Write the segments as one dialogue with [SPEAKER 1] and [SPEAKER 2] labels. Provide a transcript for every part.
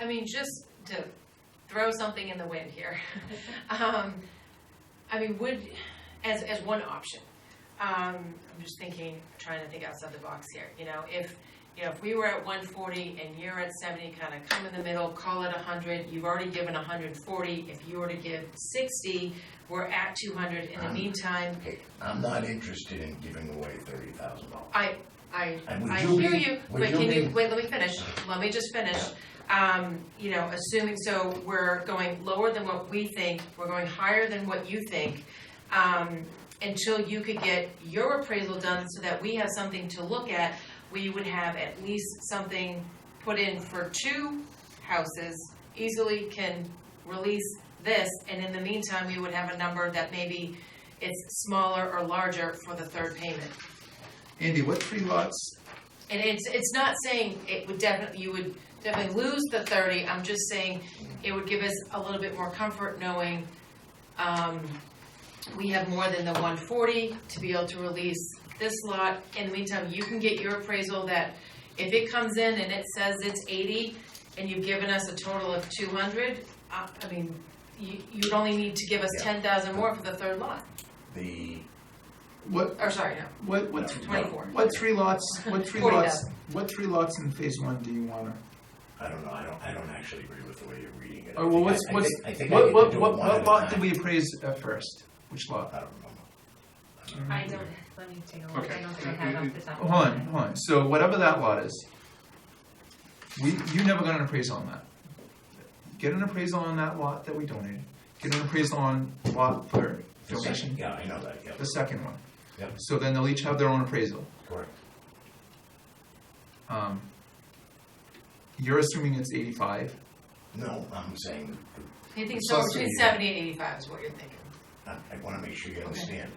[SPEAKER 1] I mean, just to throw something in the wind here. Um, I mean, would, as, as one option, um, I'm just thinking, trying to think outside the box here, you know, if, you know, if we were at one forty and you're at seventy, kind of come in the middle, call it hundred, you've already given hundred and forty, if you were to give sixty, we're at two hundred, in the
[SPEAKER 2] Um,
[SPEAKER 1] meantime,
[SPEAKER 2] Hey, I'm not interested in giving away thirty thousand dollars.
[SPEAKER 1] I, I
[SPEAKER 2] And would
[SPEAKER 1] I
[SPEAKER 2] you
[SPEAKER 1] hear
[SPEAKER 2] be-
[SPEAKER 1] you,
[SPEAKER 2] would
[SPEAKER 1] but can
[SPEAKER 2] be-
[SPEAKER 1] you, wait, let me finish, let me just finish. Um, you know, assuming, so we're going lower than what we think, we're going higher than what you think, um, until you could get your appraisal done so that we have something to look at, we would have at least something put in for two houses, easily can release this, and in the meantime, we would have a number that maybe it's smaller or larger for the third payment.
[SPEAKER 3] Andy, what three lots?
[SPEAKER 1] And it's, it's not saying it would definitely, you would definitely lose the thirty, I'm just saying it would give us a little bit more comfort knowing, um, we have more than the one forty to be able to release this lot. In the meantime, you can get your appraisal that if it comes in and it says it's eighty and you've given us a total of two hundred, I, I mean, you, you'd only need to give us
[SPEAKER 2] Yeah.
[SPEAKER 1] ten thousand more for the third lot,
[SPEAKER 2] The,
[SPEAKER 3] What,
[SPEAKER 1] or sorry, no,
[SPEAKER 3] what, what,
[SPEAKER 2] No.
[SPEAKER 1] twenty-four.
[SPEAKER 3] what three lots, what three
[SPEAKER 1] Forty
[SPEAKER 3] lots, what three lots in phase one do you wanna?
[SPEAKER 2] I don't know, I don't, I don't actually agree with the way you're reading it.
[SPEAKER 3] Oh, well, what's,
[SPEAKER 2] I
[SPEAKER 3] what's,
[SPEAKER 2] think- I think I
[SPEAKER 3] what,
[SPEAKER 2] get to
[SPEAKER 3] what,
[SPEAKER 2] do it
[SPEAKER 3] what,
[SPEAKER 2] one at
[SPEAKER 3] what
[SPEAKER 2] a
[SPEAKER 3] lot
[SPEAKER 2] time.
[SPEAKER 3] did we appraise at first? Which lot?
[SPEAKER 2] I don't remember.
[SPEAKER 4] I don't, let me take a look, I
[SPEAKER 3] Okay.
[SPEAKER 4] don't think I have off the top of
[SPEAKER 3] Hold
[SPEAKER 4] my
[SPEAKER 3] on,
[SPEAKER 4] head.
[SPEAKER 3] hold on, so whatever that lot is, we, you never got an appraisal on that. Get an appraisal on that lot that we donated, get an appraisal on lot third
[SPEAKER 2] The second-
[SPEAKER 3] donation,
[SPEAKER 2] Yeah, I know that, yeah,
[SPEAKER 3] the second one.
[SPEAKER 2] Yep.
[SPEAKER 3] So then they'll each have their own appraisal.
[SPEAKER 2] correct.
[SPEAKER 3] Um, you're assuming it's eighty-five,
[SPEAKER 2] No, I'm saying,
[SPEAKER 1] I think somewhere
[SPEAKER 3] Plus
[SPEAKER 1] between
[SPEAKER 3] the-
[SPEAKER 1] seventy and eighty-five is what you're thinking.
[SPEAKER 2] I, I wanna make sure you understand.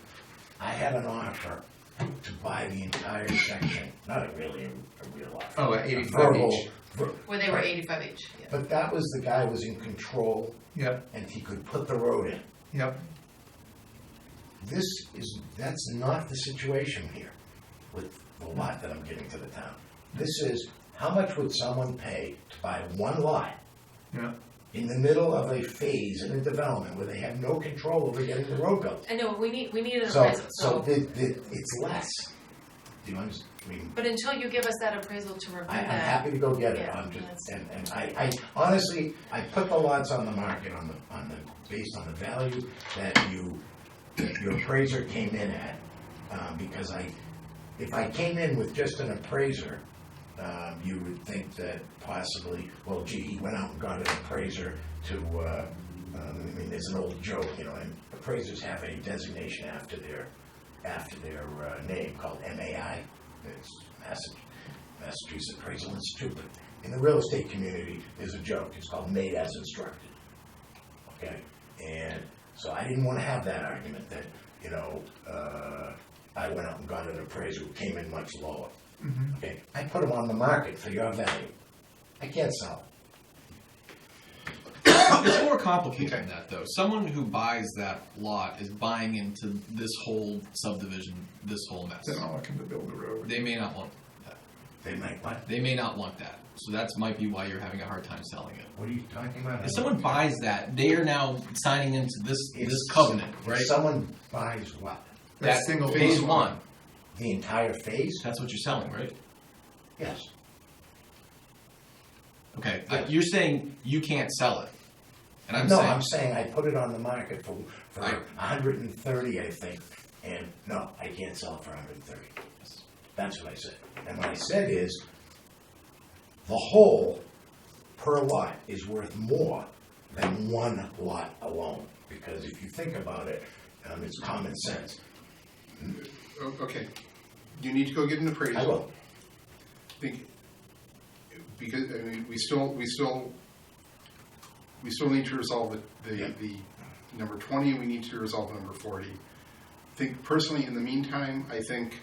[SPEAKER 2] I had an offer to buy the entire section, not a really, a real offer.
[SPEAKER 3] oh,
[SPEAKER 2] A
[SPEAKER 3] at eighty-five
[SPEAKER 2] verbal-
[SPEAKER 3] each,
[SPEAKER 2] ver-
[SPEAKER 1] Where they were eighty-five each, yeah.
[SPEAKER 2] But that was the guy was in control
[SPEAKER 3] yep,
[SPEAKER 2] and he could put the road in.
[SPEAKER 3] yep,
[SPEAKER 2] This is, that's not the situation here with the lot that I'm giving to the town. This is, how much would someone pay to buy one lot
[SPEAKER 3] yeah.
[SPEAKER 2] in the middle of a phase in a development where they have no control over getting the road built?
[SPEAKER 1] I know, we need, we need an
[SPEAKER 2] So,
[SPEAKER 1] appraisal,
[SPEAKER 2] so
[SPEAKER 1] so,
[SPEAKER 2] the, the, it's less. Do you understand? I mean,
[SPEAKER 1] but until you give us that appraisal to review
[SPEAKER 2] I, I'm
[SPEAKER 1] that,
[SPEAKER 2] happy to go get it,
[SPEAKER 1] Yeah,
[SPEAKER 2] I'm just,
[SPEAKER 1] that's-
[SPEAKER 2] and, and I, I, honestly, I put the lots on the market on the, on the, based on the value that you, that your appraiser came in at, um, because I, if I came in with just an appraiser, um, you would think that possibly, well, gee, he went out and got an appraiser to, uh, uh, I mean, there's an old joke, you know, and appraisers have a designation after their, after their, uh, name called MAI, it's Massachusetts Massachusetts Appraisal Institute, but in the real estate community, there's a joke, it's called made as instructed. Okay, and so I didn't wanna have that argument that, you know, uh, I went out and got an appraiser who came in much lower.
[SPEAKER 3] mhm.
[SPEAKER 5] Mm-hmm.
[SPEAKER 2] Okay, I put them on the market for your value. I can't sell 'em.
[SPEAKER 5] it's more complicated than that though. Someone who buys that lot is buying into this whole subdivision, this whole mess.
[SPEAKER 3] They're not looking to build a road.
[SPEAKER 5] They may not want that.
[SPEAKER 2] They might, what?
[SPEAKER 5] They may not want that. So that's might be why you're having a hard time selling it.
[SPEAKER 2] What are you talking about?
[SPEAKER 5] If someone buys that, they are now signing into this
[SPEAKER 2] If-
[SPEAKER 5] this covenant, right?
[SPEAKER 2] If someone buys what?
[SPEAKER 5] that
[SPEAKER 3] That's single
[SPEAKER 5] phase
[SPEAKER 3] phase
[SPEAKER 5] one.
[SPEAKER 3] one.
[SPEAKER 2] The entire phase?
[SPEAKER 5] That's what you're selling, right?
[SPEAKER 2] Yes.
[SPEAKER 5] Okay. Uh, you're saying you can't sell it, and I'm
[SPEAKER 2] No,
[SPEAKER 5] saying
[SPEAKER 2] I'm saying I put it on the market for, for
[SPEAKER 5] I-
[SPEAKER 2] hundred and thirty, I think, and no, I can't sell it for hundred and thirty. That's what I said. And what I said is, the whole per lot is worth more than one lot alone. Because if you think about it, um, it's common sense.
[SPEAKER 6] O- Oh, Okay, you need to go get an appraisal.
[SPEAKER 2] I will,
[SPEAKER 6] Think- Because, I mean, we still, we still, we still need to resolve the, the,
[SPEAKER 2] Yeah.
[SPEAKER 6] the number twenty, we need to resolve number forty. Think personally, in the meantime, I think,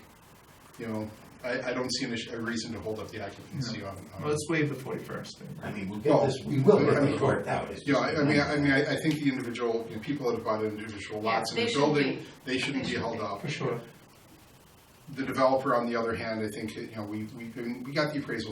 [SPEAKER 6] you know, I, I don't see an issue, a reason to hold up the occupancy on,
[SPEAKER 3] Well,
[SPEAKER 6] on.
[SPEAKER 3] Let's waive the forty-first thing.
[SPEAKER 2] I mean, we'll get
[SPEAKER 6] Well,
[SPEAKER 2] this, we will
[SPEAKER 6] I
[SPEAKER 2] get
[SPEAKER 6] mean,
[SPEAKER 2] this worked out. It's
[SPEAKER 6] You know,
[SPEAKER 2] just a
[SPEAKER 6] I, I mean, I, I
[SPEAKER 2] number.
[SPEAKER 6] mean, I, I think the individual, you know, people that have bought individual
[SPEAKER 1] Yeah,
[SPEAKER 6] lots
[SPEAKER 1] they
[SPEAKER 6] in the
[SPEAKER 1] shouldn't
[SPEAKER 6] building,
[SPEAKER 1] be.
[SPEAKER 6] they shouldn't
[SPEAKER 1] They
[SPEAKER 6] be
[SPEAKER 1] shouldn't
[SPEAKER 6] held
[SPEAKER 1] be.
[SPEAKER 6] up.
[SPEAKER 3] For sure.
[SPEAKER 6] The developer, on the other hand, I think, you know, we, we, we got the appraisal